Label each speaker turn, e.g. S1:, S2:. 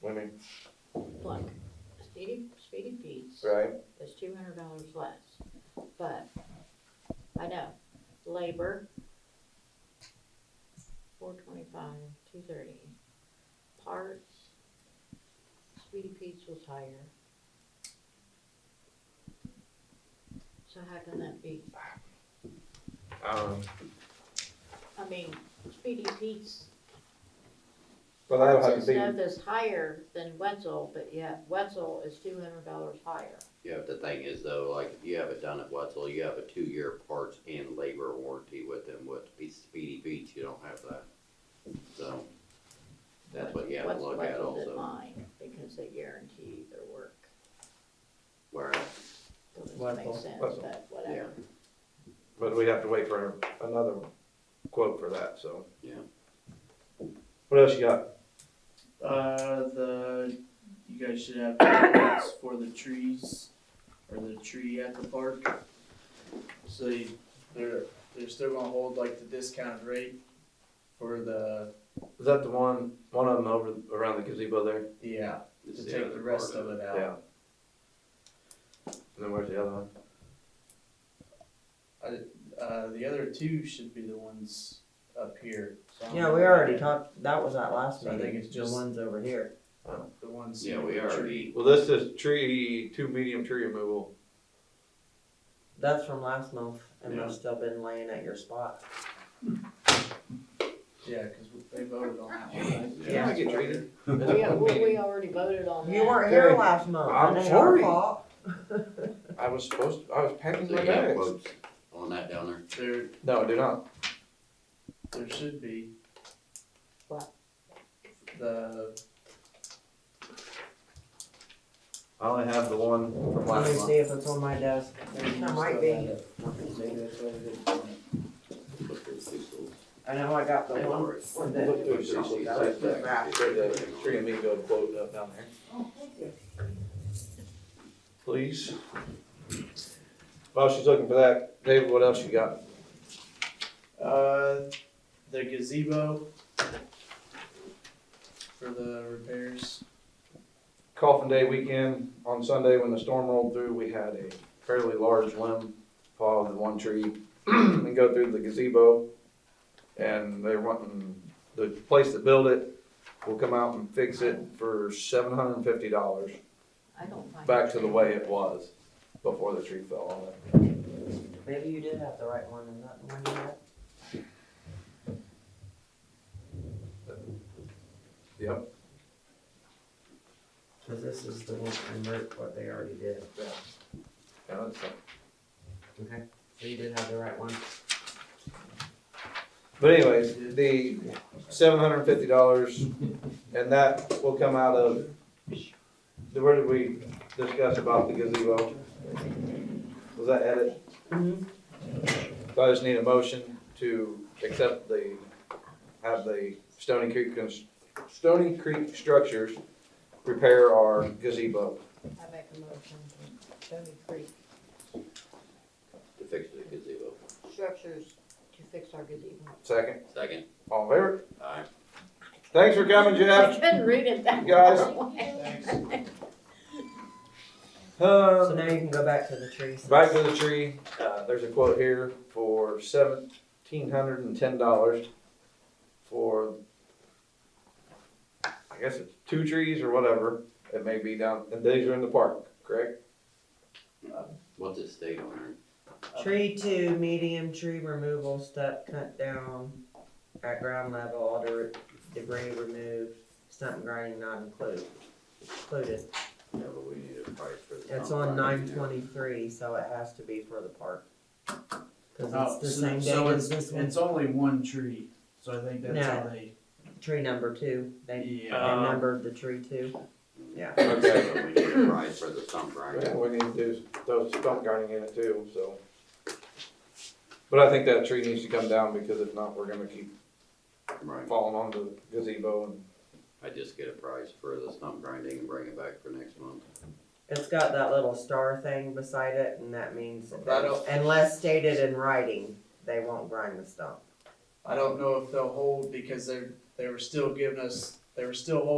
S1: Women,
S2: Look, Speedy, Speedy Pete's
S1: right?
S2: is two hundred dollars less, but I know, labor, four twenty-five, two thirty. Parts, Speedy Pete's was higher. So how can that be?
S1: Um,
S2: I mean, Speedy Pete's
S1: well, that'll have
S2: Wetzel's
S1: to be,
S2: stuff is higher than Wetzel, but yet Wetzel is two hundred dollars higher.
S3: Yeah, but the thing is though, like if you have it done at Wetzel, you have a two-year parts and labor warranty with them, with Spe- Speedy Beach, you don't have that. So, that's what you have to
S2: Wetzel-
S3: look at
S2: Wetzel did
S3: also,
S2: mine, because they guarantee their work,
S3: where,
S2: doesn't
S1: Wetzel-
S2: make sense,
S1: Wetzel.
S2: but
S3: yeah,
S2: whatever.
S1: but we'd have to wait for another quote for that, so.
S3: Yeah.
S1: What else you got?
S4: Uh, the, you guys should have permits for the trees, or the tree at the park. So you, they're, they're still gonna hold like the discounted rate for the,
S1: Is that the one, one of them over, around the gazebo there?
S4: yeah,
S3: it's
S4: to
S3: the
S4: take
S3: other
S4: the rest
S3: part
S4: of it out.
S1: Yeah. And then where's the other one?
S4: Uh, the other two should be the ones up here. So I'm-
S5: Yeah, we already talked, that was that last
S4: So I
S5: meeting.
S4: think it's just-
S5: The ones over here.
S4: The ones.
S3: Yeah, we
S4: the
S3: already,
S1: Well, this is tree, two medium tree removal.
S5: That's from last month, and
S3: Yeah.
S5: they've still been laying at your spot.
S4: Yeah, cause they voted on that one. right?
S3: Yeah.
S1: I get treated.
S2: Yeah, we, we already voted on that.
S5: You weren't here
S1: Okay.
S5: last month.
S1: I'm
S5: It ain't
S1: sorry.
S5: Your fault.
S1: I was supposed, to- I was packing
S3: so
S1: my
S3: you have
S1: bags.
S3: quotes on that down there,
S4: There,
S1: No, do not.
S4: there should be.
S2: What?
S4: The,
S1: I only have the one from
S5: Let me
S1: last
S5: see
S1: month.
S5: if it's on my desk. That might be.
S4: Maybe that's what it is.
S3: look through the two
S5: I know I got the
S3: They've
S5: one.
S3: already-
S5: with the-
S1: Look through Cecil's
S5: That was
S1: back.
S5: back.
S1: There's a tree amigo quote up down there. Please. While she's looking for that, David, what else you got?
S4: Uh, the gazebo for the repairs.
S1: Coffin Day weekend, on Sunday when the storm rolled through, we had a fairly large limb fall of the one tree and go through the gazebo. And they're wanting, the place that built it will come out and fix it for seven hundred and fifty dollars.
S2: I don't find.
S1: back to the way it was before the tree fell on it.
S5: Maybe you did have the right one, and not the one you had.
S1: Yep.
S5: Cause this is the one from Merck, what they already did.
S1: Yeah, that's fine.
S5: Okay. So you did have the right one.
S1: But anyways, the seven hundred and fifty dollars, and that will come out of, where did we discuss about the gazebo? Was that edit?
S5: Mm-hmm.
S1: So I just need a motion to accept the, have the Stony Creek, cons- Stony Creek Structures repair our gazebo.
S2: I make a motion, Stony Creek
S3: to fix the gazebo.
S2: structures to fix our gazebo.
S1: Second,
S3: Second,
S1: all in favor?
S3: aye,
S1: Thanks for coming, Jeff.
S2: I couldn't read it that
S1: Guys.
S2: way.
S5: So
S1: Uh,
S5: now you can go back to the trees.
S1: back to the tree, uh, there's a quote here for seventeen hundred and ten dollars for, I guess it's two trees or whatever, it may be down, and these are in the park, correct?
S3: what's it state on there?
S5: Tree two, medium tree removal step cut down at ground level, all de- debris removed, stump grinding not included. Included.
S3: Yeah, but we need a price for the.
S5: It's on
S3: contract.
S5: nine twenty-three, so it has to be for the park. Cause
S4: Oh,
S5: it's
S4: so-
S5: the same
S4: so
S5: day as this one.
S4: It's only one tree, so I think that's how
S5: No.
S4: they.
S5: Tree number two, they, they
S4: Yeah.
S1: Um,
S5: numbered the tree two. Yeah.
S1: Okay.
S3: But We need a price for the stump
S1: Yeah,
S3: grinder.
S1: we need to do those stump grinding in it too, so. But I think that tree needs to come down because if not, we're gonna keep
S3: right?
S1: falling on the gazebo and
S3: I just get a price for the stump grinding and bring it back for next month.
S5: It's got that little star thing beside it, and that means
S4: I don't-
S5: unless stated in writing, they won't grind the stump.
S4: I don't know if they'll hold because they're, they were still giving us, they were still holding